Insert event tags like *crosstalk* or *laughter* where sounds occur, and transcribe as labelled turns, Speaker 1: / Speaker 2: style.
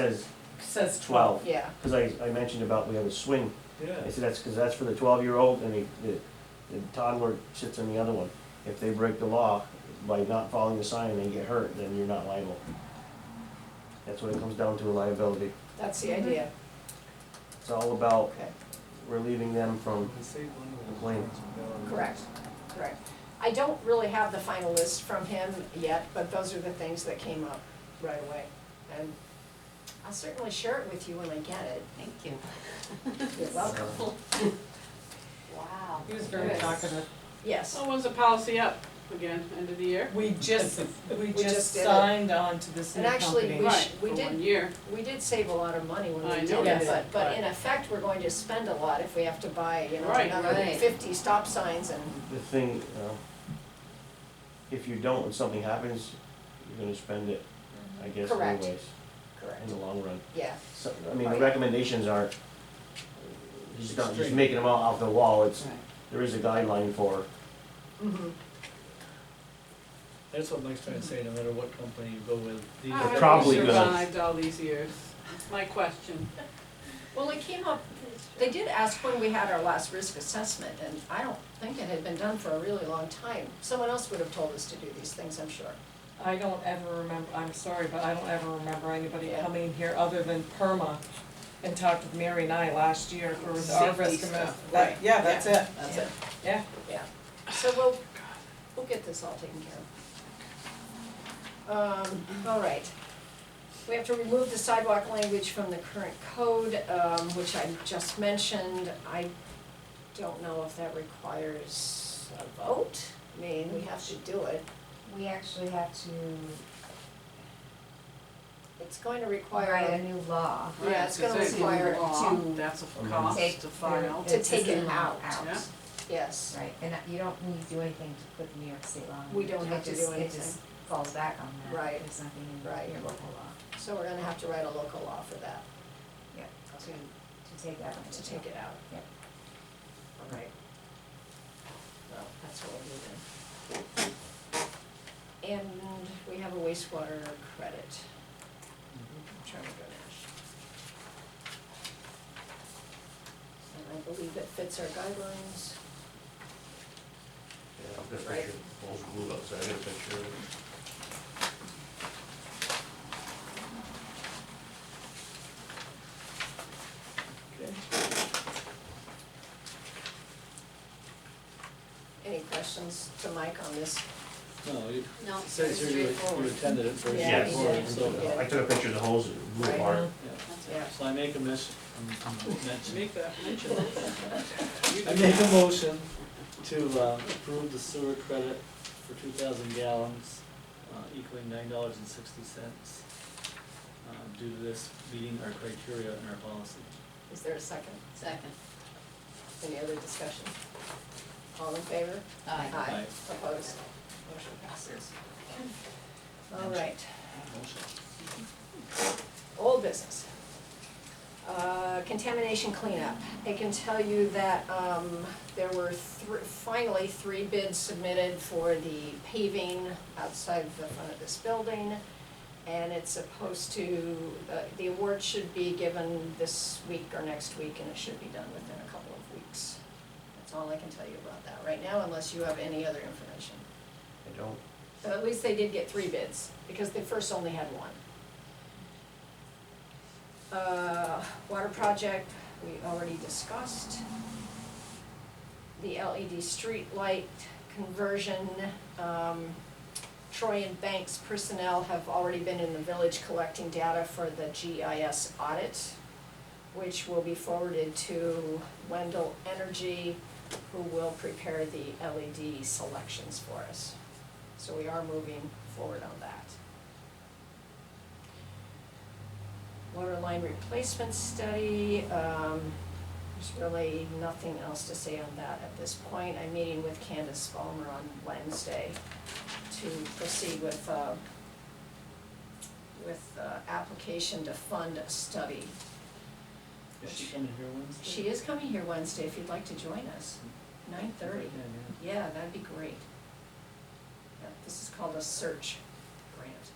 Speaker 1: says,
Speaker 2: Says
Speaker 1: 12.
Speaker 2: twelve, yeah.
Speaker 1: because I, I mentioned about we have a swing,
Speaker 3: Yeah.
Speaker 1: I said that's, because that's for the twelve-year-old and the, the the toddler sits on the other one. If they break the law by not following the sign and they get hurt, then you're not liable. That's what it comes down to, liability.
Speaker 2: That's the idea,
Speaker 1: It's all about
Speaker 2: okay,
Speaker 1: relieving them from, Complaint.
Speaker 2: correct, correct. I don't really have the final list from him yet, but those are the things that came up right away. And I'll certainly share it with you when I get it.
Speaker 4: Thank you.
Speaker 2: *laughs* You're
Speaker 1: uh,
Speaker 2: welcome.
Speaker 4: Wow.
Speaker 5: He was very
Speaker 2: Yes.
Speaker 5: talkative.
Speaker 2: Yes,
Speaker 6: So when's the policy up again, end of the year?
Speaker 5: We just, we just
Speaker 2: just did it.
Speaker 5: signed on to this new
Speaker 2: And actually,
Speaker 5: company.
Speaker 2: We sh-
Speaker 6: Right,
Speaker 2: we
Speaker 6: for
Speaker 2: did-
Speaker 6: one year.
Speaker 2: we did save a lot of money when
Speaker 6: I
Speaker 2: we
Speaker 6: know
Speaker 2: did
Speaker 5: we
Speaker 2: it, but,
Speaker 5: did,
Speaker 2: but
Speaker 5: but-
Speaker 2: in effect, we're going to spend a lot if we have to buy, you know,
Speaker 6: Right,
Speaker 2: another
Speaker 4: right.
Speaker 2: fifty stop signs and,
Speaker 1: the thing, you know, if you don't and something happens, you're gonna spend it, I guess
Speaker 2: Correct.
Speaker 1: anyways, in
Speaker 2: correct,
Speaker 1: the long run.
Speaker 2: yeah.
Speaker 1: So, I mean, the
Speaker 2: Right.
Speaker 1: recommendations aren't, he's just not just
Speaker 3: Extreme.
Speaker 1: making them all off the wall, it's,
Speaker 6: Right.
Speaker 1: there is a guideline for,
Speaker 2: Mhm.
Speaker 3: That's what Mike's trying to say, no matter what company you go with, these
Speaker 6: How
Speaker 3: are.
Speaker 6: have
Speaker 1: probably
Speaker 6: we
Speaker 1: gonna-
Speaker 6: survived all these years? That's my question.
Speaker 2: Well, it came up, they did ask when we had our last risk assessment, and I don't think it had been done for a really long time. Someone else would have told us to do these things, I'm sure.
Speaker 5: I don't ever remember, I'm sorry, but I don't ever remember anybody
Speaker 2: Yeah.
Speaker 5: coming here other than Perma and talked with Mary and I last year for our
Speaker 6: Safety
Speaker 5: risk
Speaker 6: stuff,
Speaker 5: assessment. That-
Speaker 6: right.
Speaker 5: Yeah, that's it,
Speaker 4: That's it.
Speaker 5: yeah.
Speaker 2: Yeah, so we'll, we'll get this all taken care of. Um, all right. We have to remove the sidewalk language from the current code, um, which I just mentioned. I don't know if that requires a vote. I mean, we have to do it.
Speaker 4: We actually have to
Speaker 2: It's going to require
Speaker 4: write a new law.
Speaker 2: Yeah, it's gonna
Speaker 6: Right, 'cause they
Speaker 2: require
Speaker 6: do law,
Speaker 4: to
Speaker 6: That's a
Speaker 1: Mhm.
Speaker 6: cost
Speaker 4: take
Speaker 6: to file.
Speaker 2: To
Speaker 4: It's
Speaker 2: take
Speaker 4: in
Speaker 2: it
Speaker 4: law
Speaker 2: out.
Speaker 6: Yeah.
Speaker 2: Yes,
Speaker 4: Right, and you don't need to do anything to put the New York State law in.
Speaker 2: We don't
Speaker 4: It
Speaker 2: have to
Speaker 4: just-
Speaker 2: do
Speaker 4: It just
Speaker 2: anything.
Speaker 4: falls back on that.
Speaker 2: Right.
Speaker 4: There's nothing in
Speaker 2: Right.
Speaker 4: your local law
Speaker 2: so we're gonna have to write a local law for that,
Speaker 4: to, to take that.
Speaker 2: to take it out.
Speaker 4: Yep.
Speaker 2: All right. Well, that's what we'll do then. And we have a wastewater credit. I'm trying to go dash. And I believe it fits our guidelines.
Speaker 7: Yeah, I've got a
Speaker 2: Right.
Speaker 7: picture, balls of glue outside, I got a picture of it.
Speaker 2: Any questions to Mike on this?
Speaker 3: No, you,
Speaker 4: No,
Speaker 3: it says here you, you attended it first.
Speaker 2: Yeah,
Speaker 7: Yes.
Speaker 2: yeah,
Speaker 3: So,
Speaker 2: yeah.
Speaker 7: I took a picture of the holes, glue
Speaker 2: Right.
Speaker 7: apart.
Speaker 2: Yeah.
Speaker 3: yeah. So I make a miss, um, mention,
Speaker 6: Make that mention. You
Speaker 3: I
Speaker 6: do.
Speaker 3: make a motion to, uh, approve the sewer credit for two thousand gallons, uh, equaling nine dollars and sixty cents. Uh, due to this meeting our criteria and our policy.
Speaker 2: Is there a second?
Speaker 4: Second.
Speaker 2: Any other discussion? All in favor?
Speaker 3: Aye.
Speaker 2: Opposed? Motion passes. All right,
Speaker 3: Motion.
Speaker 2: old business. Uh, Contamination cleanup. I can tell you that um, there were thr- finally three bids submitted for the paving outside the front of this building. And it's supposed to, the- the award should be given this week or next week, and it should be done within a couple of weeks. That's all I can tell you about that right now, unless you have any other information.
Speaker 1: I don't,
Speaker 2: But at least they did get three bids, because they first only had one. Uh, water project, we already discussed. The LED street light conversion, um, Troy and Banks personnel have already been in the village collecting data for the GIS audit, which will be forwarded to Wendell Energy, who will prepare the LED selections for us. So we are moving forward on that. Water line replacement study, um, there's really nothing else to say on that at this point. I'm meeting with Candace Balmer on Wednesday to proceed with, uh, with, uh, application to fund a study.
Speaker 3: Is she coming here Wednesday?
Speaker 2: She is coming here Wednesday if you'd like to join us, nine
Speaker 3: Yeah,
Speaker 2: thirty.
Speaker 3: yeah.
Speaker 2: Yeah, that'd be great. Yeah, this is called a search grant.